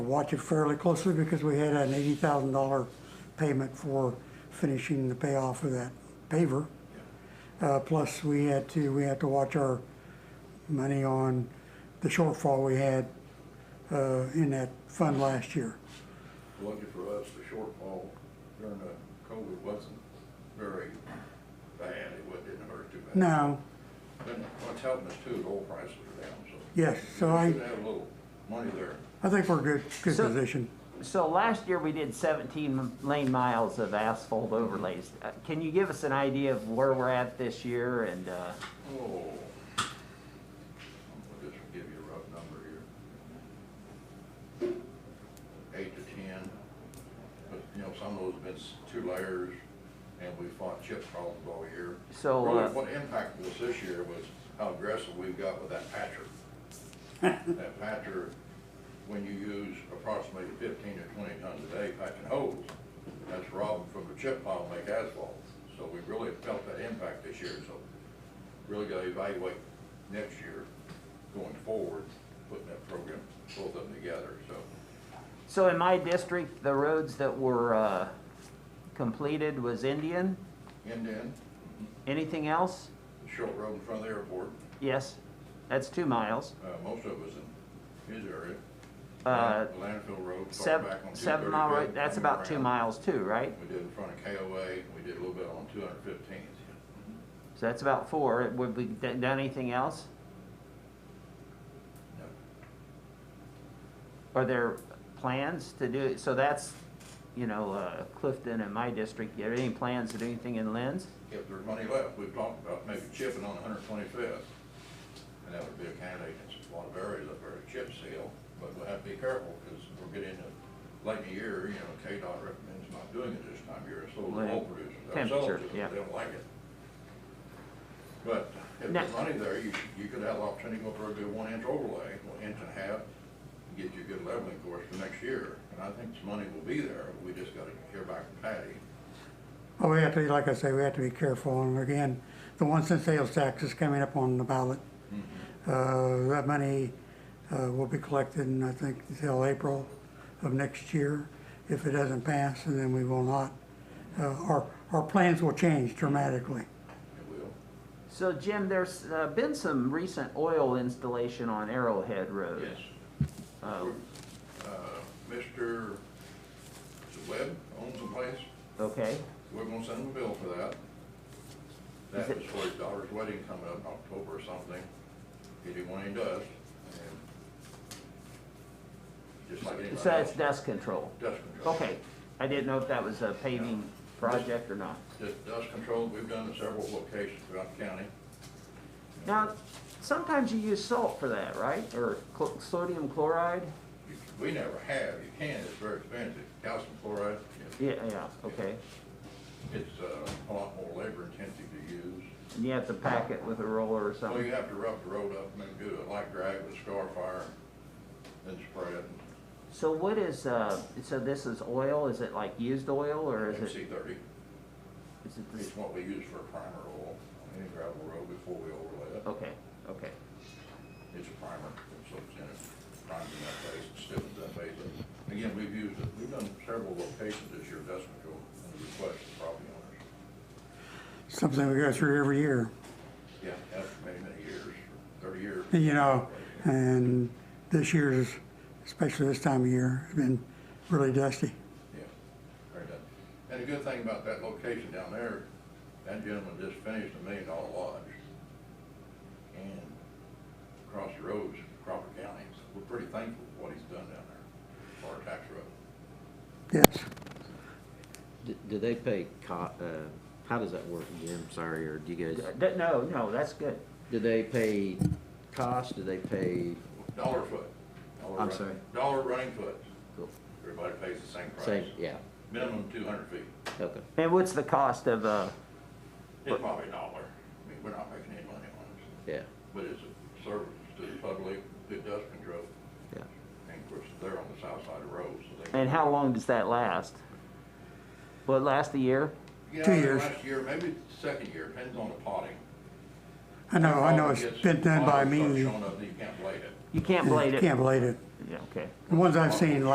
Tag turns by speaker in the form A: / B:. A: watch it fairly closely because we had an eighty thousand dollar payment for finishing the payoff of that paver. Uh, plus, we had to, we had to watch our money on the shortfall we had, uh, in that fund last year.
B: Lucky for us, the shortfall during the COVID wasn't very bad, it wa- didn't hurt too bad.
A: Now,
B: And what's helping us too, the oil prices are down, so.
A: Yes, so I-
B: We should have a little money there.
A: I think we're good, good
C: So-
A: position.
C: So last year we did 17 lane miles of asphalt overlays. Uh, Can you give us an idea of where we're at this year and, uh,
B: Oh. I'll just give you a rough number here. Eight to ten, but, you know, some of those have been s- two layers, and we fought chip problems all year.
C: So,
B: Really,
C: uh,
B: What impacted us this year was how aggressive we've got with that patcher. That patcher, when you use approximately fifteen to twenty tons a day patching holes, that's robbing from the chip pile to make asphalt. So we really felt that impact this year, so really gotta evaluate next year going forward, putting that program, both of them together, so.
C: so in my district, the roads that were, uh, completed was Indian?
B: And then,
C: Anything else?
B: the short road in front of the airport,
C: Yes, that's two miles.
B: uh, most of us in his area.
C: Uh,
B: Landfill Road, far
C: Seven,
B: back on two thirty-fifth.
C: seven mile road, that's about two miles too, right?
B: We did in front of KOA, we did a little bit on two hundred fifteenth.
C: So that's about four. Would we d- done anything else? Are there plans to do, it? so that's, you know, uh, Clifton and my district, are there any plans to do anything in Lynn's?
B: If there's money left, we've talked about maybe chipping on hundred twenty-fifth. And that would be a candidate in a lot of areas up there, a chip seal, but we'll have to be careful, because we're getting into late in the year, you know, KDOT recommends not doing it this time of year, so the
C: Right.
B: oil producers themselves,
C: Temperature,
B: do it,
C: yeah.
B: they don't like it. But if
C: Now-
B: there's money there, you, you could have the opportunity to go for a good one inch overlay, one inch and a half, and get you a good leveling course for next year, and I think the money will be there, we just gotta hear back from Patty.
A: Well, we have to, like I say, we have to be careful, and again, the one cent sales tax is coming up on the ballot. Uh, that money, uh, will be collected, in I think, until April of next year, if it doesn't pass, and then we will not. Uh, our, our plans will change dramatically.
B: It will.
C: So Jim, there's uh, been some recent oil installation on Arrowhead Road.
B: Yes.
C: Uh,
B: Uh, Mr. Webb owns the place,
C: Okay,
B: we're gonna send him a bill for that.
C: Is
B: That
C: it-
B: was for his daughter's wedding coming up in October or something, he didn't want any dust, and just like anybody
C: so that's
B: else,
C: dust control.
B: dust control.
C: Okay, I didn't know if that was a paving project or not.
B: This dust control, we've done in several locations throughout the county,
C: Now, sometimes you use salt for that, right? Or cl- sodium chloride?
B: You- we never have, you can, it's very expensive, calcium chloride, it's,
C: Yeah, yeah, okay.
B: it's uh, a lot more labor intensive to use.
C: And you have to pack it with a roller or
B: Well, you
C: something.
B: have to rough the road up and then do a light drag with scar fire, then spread it.
C: So what is, uh, so this is oil? Is it like used oil or is it,
B: MC thirty,
C: is it this?
B: it's what we use for primer oil on any gravel road before we overlay it.
C: Okay, okay.
B: It's a primer, so it's in it, primes in that phase, it stiffens that phase up. Again, we've used it, we've done several locations this year, dust control, and request of property owners.
A: Something we go through every year,
B: Yeah, that's for many, many years, thirty years.
A: you know, and this year's, especially this time of year, has been really dusty.
B: Yeah, very done. And the good thing about that location down there, that gentleman just finished a million dollar lodge. And across the roads, Crawford County, so we're pretty thankful for what he's done down there for our tax road.
A: Yes,
D: Do- Do they pay co- uh, how does that work, Jim? Sorry, or do you guys,
C: Uh, that- No, no, that's good.
D: do they pay cost? Do they pay,
B: Dollar foot. dollar
D: I'm
B: run-
D: sorry.
B: Dollar running foot.
D: Cool.
B: Everybody pays the same price.
D: same, yeah,
B: Minimum two hundred feet.
D: okay.
C: And what's the cost of, uh,
B: It's probably a dollar. I mean, we're not making any money on it,
D: Yeah,
B: but it's a service to the public, good dust control.
D: yeah.
B: And of course, they're on the south side of the road, so they.
C: and how long does that last? Will it last a year?
B: Yeah,
A: Two years.
B: Last year, maybe it's the second year, depends on the potting.
A: I know, I know it's been done by
B: Potting starts
A: me,
B: showing up that you can't blade it.
C: You can't blade it?
A: can't blade it.
C: Yeah, okay.
A: The ones I've seen